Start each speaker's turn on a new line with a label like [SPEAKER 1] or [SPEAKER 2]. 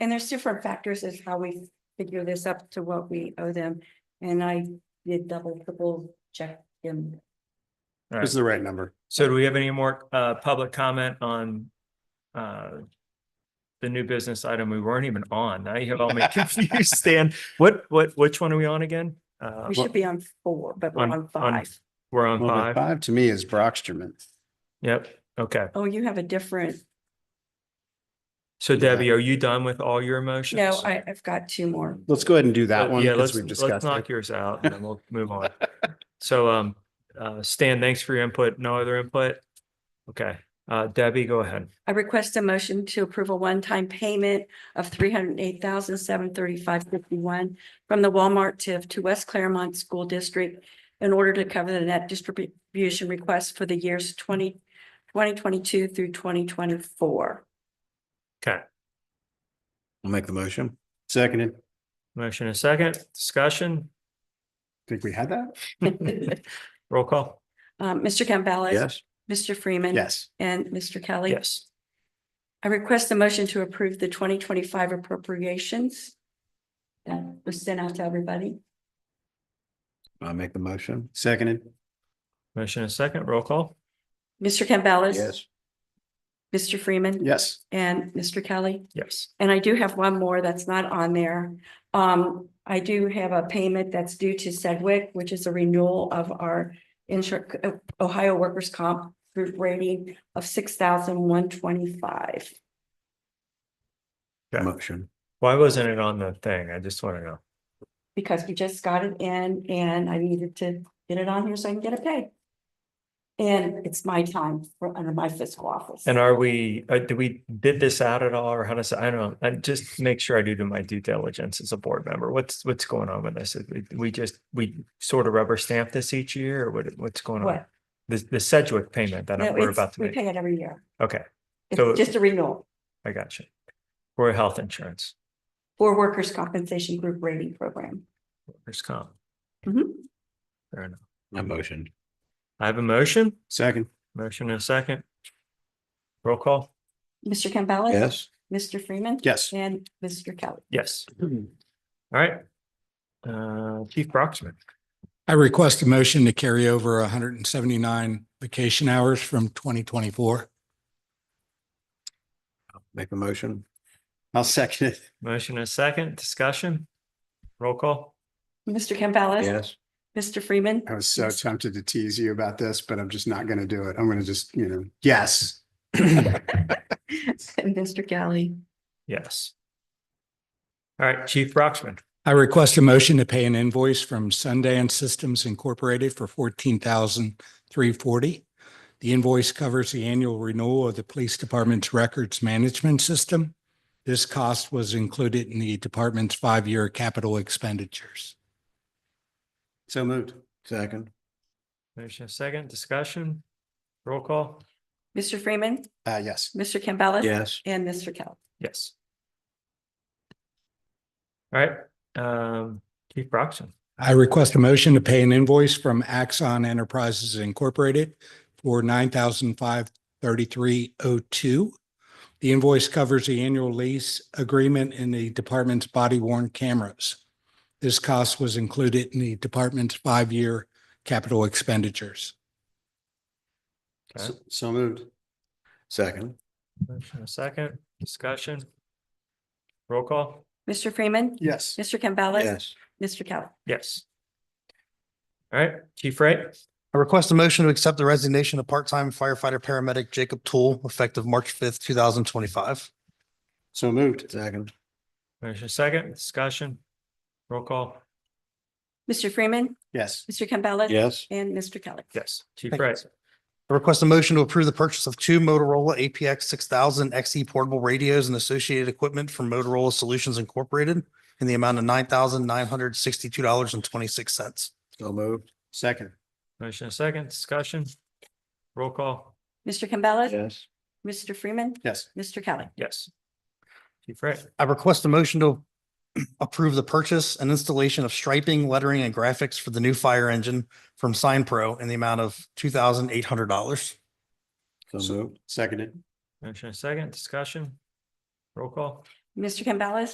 [SPEAKER 1] And there's different factors as how we figure this up to what we owe them. And I did double, triple check them.
[SPEAKER 2] All
[SPEAKER 3] This is
[SPEAKER 2] right.
[SPEAKER 3] the right number.
[SPEAKER 2] So do we have any more uh public comment on uh the new business item we weren't even on? Now you have all me confused, Stan. What, what, which one are we on again? Uh,
[SPEAKER 1] We should be on four, but we're
[SPEAKER 2] On-
[SPEAKER 1] on
[SPEAKER 2] on-
[SPEAKER 1] five.
[SPEAKER 2] we're on
[SPEAKER 3] Well, the
[SPEAKER 2] five.
[SPEAKER 3] Five to me is Brockstrom.
[SPEAKER 2] Yep. Okay.
[SPEAKER 1] Oh, you have a different,
[SPEAKER 2] So
[SPEAKER 3] Yeah.
[SPEAKER 2] Debbie, are you done with all your emotions?
[SPEAKER 1] no, I, I've got two more.
[SPEAKER 3] Let's go ahead and do that
[SPEAKER 2] Uh,
[SPEAKER 3] one
[SPEAKER 2] Yeah, let's,
[SPEAKER 3] because we've
[SPEAKER 2] let's
[SPEAKER 3] discussed
[SPEAKER 2] knock
[SPEAKER 3] it.
[SPEAKER 2] yours out and then we'll move on. So, um, uh, Stan, thanks for your input. No other input? Okay, uh, Debbie, go ahead.
[SPEAKER 1] I request a motion to approve a one-time payment of three hundred and eight thousand seven thirty-five fifty-one from the Walmart TIF to West Claremont School District in order to cover the net distribution request for the years 20 2022 through twenty twenty-four.
[SPEAKER 2] Okay,
[SPEAKER 4] I'll make the motion.
[SPEAKER 3] Seconded. I
[SPEAKER 2] motion and second, discussion,
[SPEAKER 3] Think we had that?
[SPEAKER 2] roll call.
[SPEAKER 1] Um, Mr. Campbell.
[SPEAKER 4] Yes.
[SPEAKER 1] Mr. Freeman.
[SPEAKER 3] Yes.
[SPEAKER 1] And Mr. Kelly.
[SPEAKER 2] Yes,
[SPEAKER 1] I request a motion to approve the twenty twenty-five appropriations that was sent out to everybody.
[SPEAKER 4] I'll make the motion.
[SPEAKER 3] Seconded.
[SPEAKER 2] motion and second, roll call.
[SPEAKER 1] Mr. Campbell.
[SPEAKER 4] Yes.
[SPEAKER 1] Mr. Freeman.
[SPEAKER 3] Yes.
[SPEAKER 1] And Mr. Kelly.
[SPEAKER 2] Yes,
[SPEAKER 1] And I do have one more that's not on there. Um, I do have a payment that's due to Sedgwick, which is a renewal of our insurance, Ohio workers' comp group rating of six thousand one twenty-five.
[SPEAKER 2] Okay.
[SPEAKER 4] Motion.
[SPEAKER 2] why wasn't it on the thing? I just want to know.
[SPEAKER 1] Because we just got it in and I needed to get it on here so I can get it paid. And it's my time for, under my fiscal office.
[SPEAKER 2] And are we, uh, do we bid this out at all or how does, I don't, know. I just make sure I do do my due diligence as a board member. What's, what's going on with this? We- We just, we sort of rubber stamp this each year or what, what's going on?
[SPEAKER 1] What?
[SPEAKER 2] The, the Sedgwick payment that
[SPEAKER 1] No,
[SPEAKER 2] I'm- we're
[SPEAKER 1] it's-
[SPEAKER 2] about to
[SPEAKER 1] We
[SPEAKER 2] make.
[SPEAKER 1] pay it every year.
[SPEAKER 2] Okay, So-
[SPEAKER 1] It's just a renewal
[SPEAKER 2] I got you. For health insurance,
[SPEAKER 1] for workers' compensation group rating program.
[SPEAKER 2] workers' comp.
[SPEAKER 1] Mhm.
[SPEAKER 2] Fair enough.
[SPEAKER 4] I motion.
[SPEAKER 2] I have a motion,
[SPEAKER 3] Second.
[SPEAKER 2] motion and a second. Roll call,
[SPEAKER 1] Mr. Campbell.
[SPEAKER 4] Yes.
[SPEAKER 1] Mr. Freeman.
[SPEAKER 3] Yes.
[SPEAKER 1] And Mr. Kelly.
[SPEAKER 2] yes. All right. Uh, Chief Brocksmith,
[SPEAKER 5] I request a motion to carry over hundred and seventy-nine vacation hours from twenty twenty-four.
[SPEAKER 4] Make the motion.
[SPEAKER 3] I'll second it.
[SPEAKER 2] motion and a second, discussion. Roll call,
[SPEAKER 1] Mr. Campbell.
[SPEAKER 4] Yes.
[SPEAKER 1] Mr. Freeman.
[SPEAKER 3] I was so
[SPEAKER 1] Yes.
[SPEAKER 3] tempted to tease you about this, but I'm just not going to do it. I'm going to just, you know, yes.
[SPEAKER 1] And Mr. Kelly.
[SPEAKER 2] yes. All right, Chief Brocksmith,
[SPEAKER 5] I request a motion to pay an invoice from Sundance Systems Incorporated for fourteen thousand three forty. The invoice covers the annual renewal of the police department's records management system. This cost was included in the department's five-year capital expenditures.
[SPEAKER 3] So moved.
[SPEAKER 4] Second.
[SPEAKER 2] motion and a second, discussion. Roll call,
[SPEAKER 1] Mr. Freeman.
[SPEAKER 3] Uh, yes.
[SPEAKER 1] Mr. Campbell.
[SPEAKER 4] Yes.
[SPEAKER 1] And Mr. Kelly.
[SPEAKER 2] yes. All right, um, Chief Brocksmith.
[SPEAKER 5] I request a motion to pay an invoice from Axon Enterprises Incorporated for nine thousand five thirty-three oh two. The invoice covers the annual lease agreement in the department's body worn cameras. This cost was included in the department's five-year capital expenditures.
[SPEAKER 2] Okay.
[SPEAKER 3] So- So moved.
[SPEAKER 4] Second.
[SPEAKER 2] Motion and a second, discussion. Roll call,
[SPEAKER 1] Mr. Freeman.
[SPEAKER 3] Yes.
[SPEAKER 1] Mr. Campbell.
[SPEAKER 4] Yes.
[SPEAKER 1] Mr. Kelly.
[SPEAKER 2] yes. All right, Chief Wright,
[SPEAKER 6] I request a motion to accept the resignation of part-time firefighter paramedic Jacob Tool effective March fifth, two thousand twenty-five.
[SPEAKER 3] So moved.
[SPEAKER 4] Second.
[SPEAKER 2] motion second, discussion, roll call,
[SPEAKER 1] Mr. Freeman.
[SPEAKER 3] Yes.
[SPEAKER 1] Mr. Campbell.
[SPEAKER 4] Yes.
[SPEAKER 1] And Mr. Kelly.
[SPEAKER 2] yes, Chief
[SPEAKER 6] Thank you.
[SPEAKER 2] Wright,
[SPEAKER 6] I request a motion to approve the purchase of two Motorola APX six thousand XE portable radios and associated equipment from Motorola Solutions Incorporated in the amount of nine thousand nine hundred sixty-two dollars and twenty-six cents.
[SPEAKER 4] So moved.
[SPEAKER 3] Second.
[SPEAKER 2] motion second, discussion, roll call,
[SPEAKER 1] Mr. Campbell.
[SPEAKER 4] Yes.
[SPEAKER 1] Mr. Freeman.
[SPEAKER 3] Yes.
[SPEAKER 1] Mr. Kelly.
[SPEAKER 2] yes. Chief Wright,
[SPEAKER 6] I request a motion to approve the purchase and installation of striping, lettering, and graphics for the new fire engine from Sign Pro in the amount of two thousand eight hundred dollars.
[SPEAKER 4] So moved.
[SPEAKER 3] Seconded.
[SPEAKER 2] motion second, discussion, roll call,
[SPEAKER 1] Mr. Campbell.